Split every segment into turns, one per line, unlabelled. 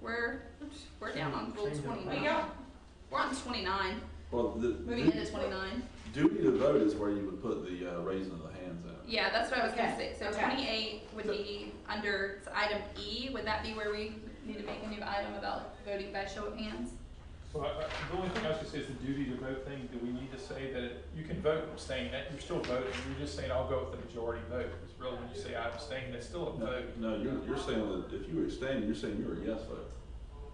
we're, we're down on full
Change it.
twenty-nine.
But y'all-
We're on twenty-nine,
Well, the
moving
du-
into twenty-nine.
duty to vote is where you would put the uh, raising of the hands at.
Yeah, that's what I was gonna say.
Okay,
So
okay.
twenty-eight would be under it's item E. Would that be where we need to make a new item about voting by show of hands?
So I, I, the only thing I was gonna say is the duty to vote thing, do we need to say that it- you can vote abstain, that you're still voting, you're just saying, I'll go with the majority vote. It's really when you say I abstain, that's still a
No,
vote.
no, you're, you're saying that if you abstain, you're saying you're a yes vote.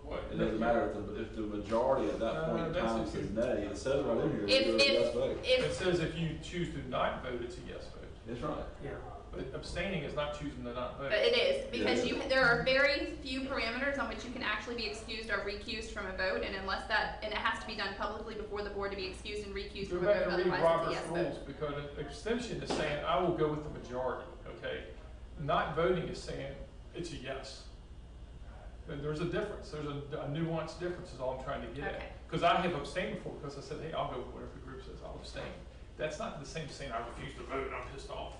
What-
It doesn't matter if the, if the majority at that
No,
point in
that's
time
if
says
you-
nay, it says right in here, that
If-
you're a
if-
yes vote.
It
If,
says if you choose to not vote, it's a yes vote,
That's right.
Yeah.
but abstaining is not choosing to not vote.
but it is, because
Yeah.
you, there are very few parameters on which you can actually be excused or recused from a vote, and unless that, and it has to be done publicly before the board to be excused and recused
Go
from a
back
vote,
and
otherwise
read
it's a
Robert's
yes
rules,
vote.
because an abstention is saying, I will go with the majority, okay? Not voting is saying, it's a yes. And there's a difference, there's a a nuanced difference is all I'm trying to get
Okay.
at. Because I have abstained before, because I said, hey, I'll go with whatever the group says, I'll abstain. That's not the same as saying, I refuse to vote, and I'm pissed off.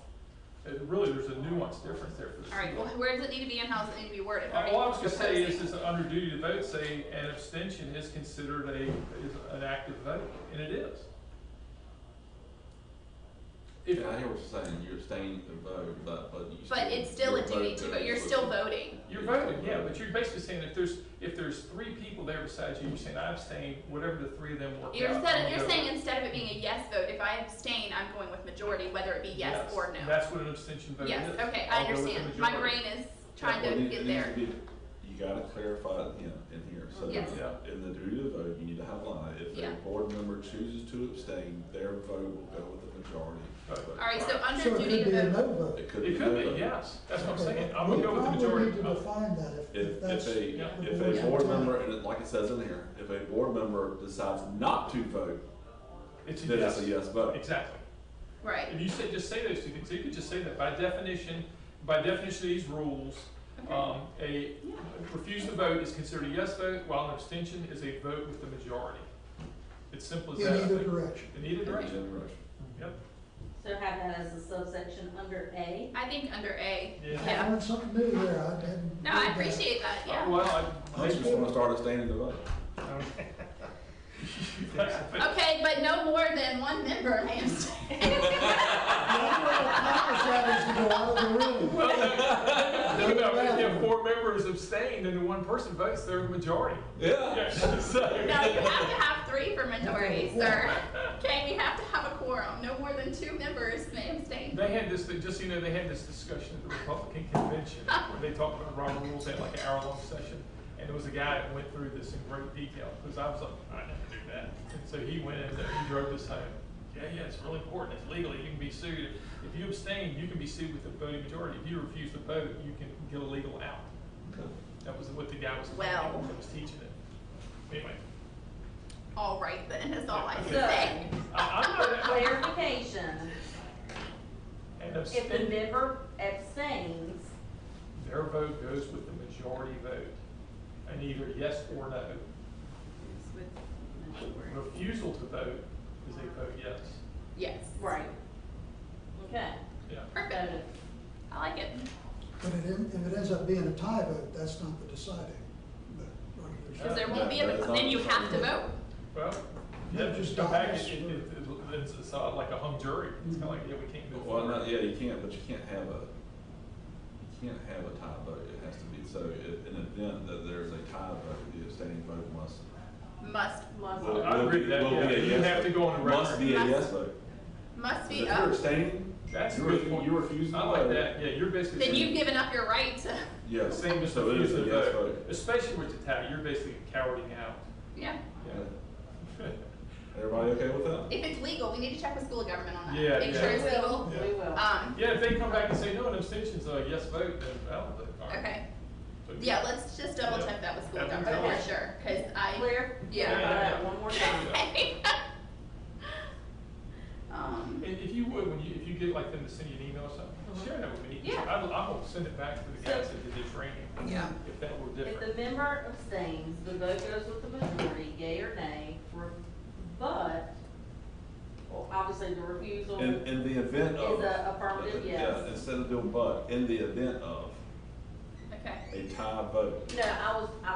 It Really, there's a nuanced difference there for the.
All right, well, where does it need to be and how does it need to be worded? Are we
All I was gonna say is,
proposing-
is under duty to vote, say, an abstention is considered a, is an active vote, and it is. If,
Yeah, I hear what you're saying, you're abstaining to vote, but, but you still.
But it's still a
your
duty
vote
to, but you're
is-
still voting.
You're voting, yeah, but you're basically saying if there's, if there's three people there besides you, you're saying I abstain, whatever the three of them work out.
You're
I'm
saying, you're
gonna
saying
go.
instead of it being a yes vote, if I abstain, I'm going with majority, whether it be yes or no.
That's what an abstention vote is.
Yes, okay, I
I'll go with the
understand. My
majority.
brain is trying
Well, it
to
needs-
get
it needs
there.
to be- You gotta clarify it in, in here, so
Yes.
Yeah.
in the duty to vote, you need to have line, if
Yeah.
a board member chooses to abstain, their vote will go with the majority.
Right.
vote.
All right, so
So
under
it
duty
could be a
to vote,
no vote.
It could be.
It could
no vote.
be, yes, that's what I'm saying, I'm
We
gonna go with the
probably
majority
need to
vote.
define that if, if
If, if
that's.
a,
yeah.
if
Yeah.
a board member, and it- like it says in here, if a board member decides not to vote,
It's a
then it's
yes,
a yes vote.
exactly.
right,
If you say, just say those two things, so you could just say that by definition, by definition of these rules, um, a refuse to vote is considered a yes vote, while an abstention is a vote with the majority. It's simple as
In
that. I
either
think.
direction.
In either
Every
direction,
generation.
yep.
So have that as a subsection under A?
I think under A.
Yeah.
I learned something new there, I didn't.
No, I
read that.
appreciate that,
Oh,
yeah.
Well, I,
I just wanna start abstaining to vote.
Okay, but no more than one member, I am
I'm gonna promise that is to go out of the room.
Well, no, no, no, no, if four members abstain, then the one person votes, they're the majority.
Yeah.
Yeah, so,
No, you have to have three for majority, sir. Okay, you have to have a quorum. No more than two members may abstain.
they had this, thing- just so you know, they had this discussion at the Republican convention, where they talked about Robert Rules, they had like an hour-long session, and there was a guy that went through this in great detail, because I was like, I never knew that. And so he went in there, he drove this home, yeah, yeah, it's really important, it's legal, you can be sued. If you abstain, you can be sued with a voting majority, if you refuse to vote, you can get a legal out. That was what the guy was,
Well.
that was teaching it. Anyway,
All right, then, is all I can
So-
say.
I, I'm not,
Clarification,
And
if the
abstain,
member abstains,
their vote goes with the majority vote, and either yes or no. Refusal to vote is a vote yes.
Yes.
right. Okay.
Yeah.
Perfect.
Noted.
I like it.
But it, en- if it ends up being a tie vote, that's not the deciding. vote.
Because
Uh,
there won't be, a then you have to vote.
Well, yeah, just go back, it, it, it- it's, it's uh, like a hung jury, it's kinda like, yeah, we can't move
Well, no,
forward.
yeah, you can't, but you can't have a, you can't have a tie vote, it has to be, so i- in an event that there's a tie vote, the abstaining vote must.
Must,
Must-
Well, I agree with that,
will be a
yeah, you
yes
have to
vote.
go on the
Must
record.
be a
Must-
yes vote.
must
If
be
you're
up.
abstaining,
That's a
you
good
refu-
point.
you refuse to
I like
vote.
that, yeah, you're basically.
Then
saying-
you've given up your right to,
yes,
Same as
so it is
refusing
a
to
yes
vote,
vote.
especially with the tie, you're basically cowarding out.
yeah.
Yeah.
Everybody okay with that?
If it's legal, we need to check with school government on that.
Yeah,
Make
yeah.
sure
We
it's
will,
legal.
we will.
Um,
Yeah, if they come back and say, no, an abstention's a yes vote, then I'll vote. All right.
okay.
So-
Yeah, let's just double check that with school
Yeah.
government
Okay.
for sure, because I,
Clear?
Yeah.
Clarify that One more time.
okay. Um,
And if you would, when you, if you get like them to send you an email or something, share that with me.
Uh-huh. Yeah.
I, I will send it back to the guys that did the training.
Yeah.
If that were
If
different.
the member abstains, the vote goes with the majority, yea or nay, re- but, well, obviously the refusal,
In, in the event
Is
of.
a affirmative
yeah,
yes.
Instead of doing but, in the event of
okay.
a tie vote,
no, I was, I